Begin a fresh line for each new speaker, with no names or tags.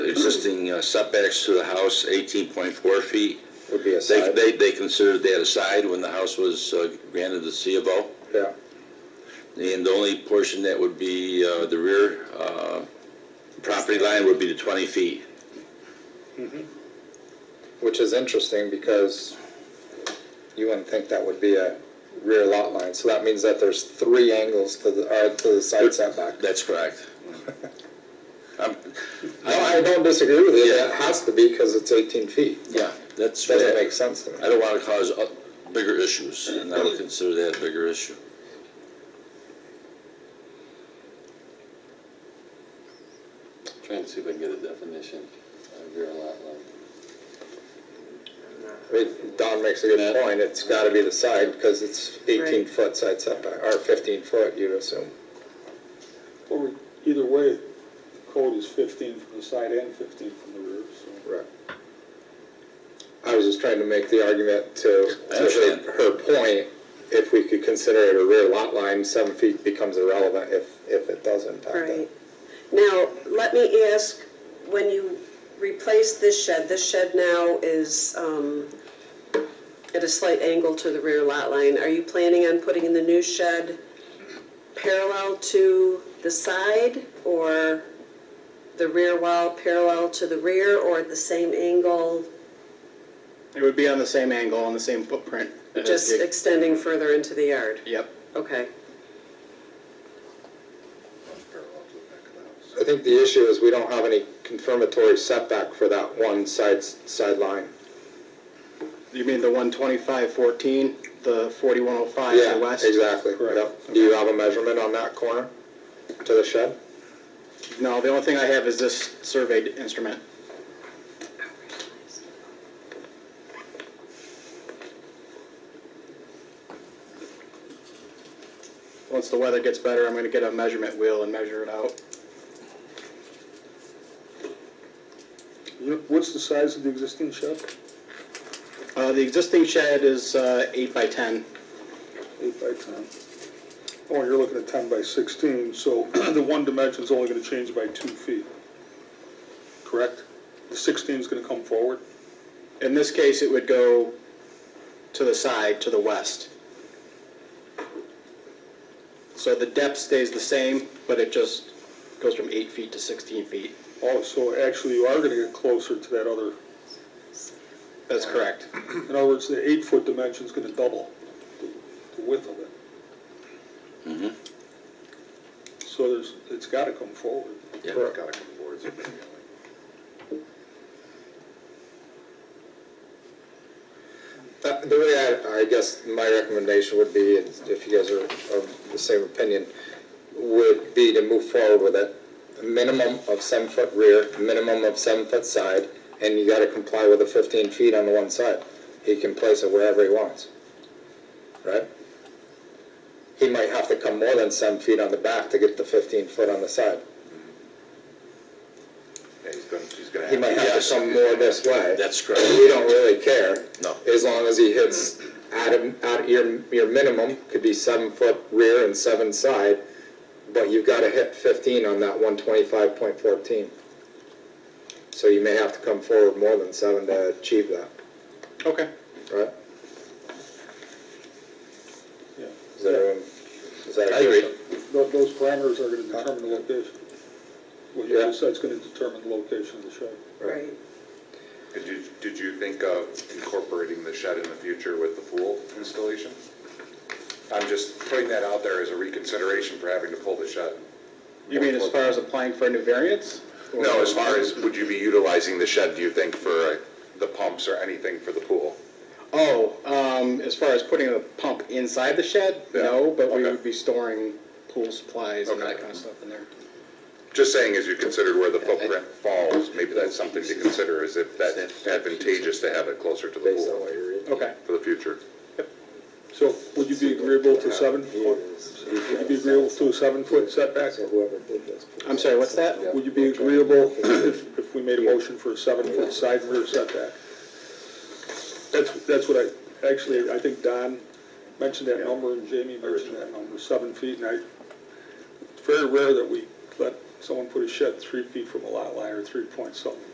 existing uh, setbacks to the house, eighteen point four feet.
would be a
They,
side.
they, they considered that a side when the house was uh, granted the C of O.
Yeah,
And the only portion that would be, uh, the rear, uh, property line would be the twenty feet.
which is interesting because you wouldn't think that would be a rear lot line. So that means that there's three angles to the, uh, to the side setback.
That's correct. Um,
No, I don't disagree with you.
Yeah.
That has to be because it's eighteen feet.
Yeah, that's.
Doesn't make sense to me.
I don't want to cause uh, bigger issues, and I would consider that a bigger issue.
Trying to see if I can get a definition of rear lot line.
I mean, Don makes a good
Yeah.
point. It's gotta be the side because it's eighteen foot side setback, or fifteen foot, you'd assume.
Or either way, code is fifteen from the side and fifteen from the rear, so.
Right. I was just trying to make the argument to,
I
to her,
understand.
her point, if we could consider it a rear lot line, seven feet becomes irrelevant if, if it does impact
Right.
it.
Now, let me ask, when you replace this shed, this shed now is um, at a slight angle to the rear lot line. Are you planning on putting the new shed parallel to the side or the rear wall parallel to the rear or at the same angle,
It would be on the same angle, on the same footprint.
just extending further into the yard?
Yep.
Okay.
I think the issue is we don't have any confirmatory setback for that one side, sideline.
You mean the one twenty-five fourteen, the forty-one oh five to
Yeah,
the west?
exactly.
Correct.
Yep. Do you have a measurement on that corner to the shed?
No, the only thing I have is this surveyed instrument. Once the weather gets better, I'm gonna get a measurement wheel and measure it out.
You- What's the size of the existing shed?
Uh, the existing shed is, uh, eight by ten.
Eight by ten. Oh, you're looking at ten by sixteen, so the one dimension's only gonna change by two feet. Correct? The sixteen's gonna come forward?
In this case, it would go to the side, to the west. So the depth stays the same, but it just goes from eight feet to 16 feet.
Oh, so actually you are gonna get closer to that other,
That's correct.
in other words, the eight foot dimension's gonna double the- the width of it. So there's, it's gotta come forward.
Yeah.
Correct. Uh, The way I, I guess my recommendation would be, is if you guys are of the same opinion, would be to move forward with it. A Minimum of seven foot rear, minimum of seven foot side, and you gotta comply with the fifteen feet on the one side. He can place it wherever he wants, right? He might have to come more than seven feet on the back to get the fifteen foot on the side. He might have to come more this way.
That's correct.
We don't really care.
No.
As long as he hits at, a- at your, your minimum, could be seven foot rear and seven side, but you've gotta hit fifteen on that one twenty-five point fourteen. So you may have to come forward more than seven to achieve that,
Okay.
right?
Yeah.
Is that, is that?
I agree.
Tho- Those parameters are gonna determine the location. What you
Yeah.
just said's gonna determine the location of the shed.
Right.
Did you, did you think of incorporating the shed in the future with the pool installation? I'm just putting that out there as a reconsideration for having to pull the shed.
You mean as far as applying for a new variance? Or-
No, as far as, would you be utilizing the shed, do you think, for uh, the pumps or anything for the pool?
Oh, um, as far as putting a pump inside the shed?
Yeah.
No, but we
Okay.
would be storing pool supplies and that
Okay.
kind of stuff in there.
Just saying, as you considered where the footprint falls, maybe that's something to consider, is if that's advantageous to have it closer to the
Based on
pool
what you're reading.
Okay.
for the future.
So would you be agreeable to seven
He
foot?
is-
Would you be agreeable to a seven foot setback?
So whoever did this.
I'm sorry, what's that?
Would you be agreeable if, if we made a motion for a seven foot side and rear setback? That's, that's what I, actually, I think Don mentioned that number and Jamie mentioned that number, seven feet, and I, it's very rare that we let someone put a shed three feet from a lot line or three point something.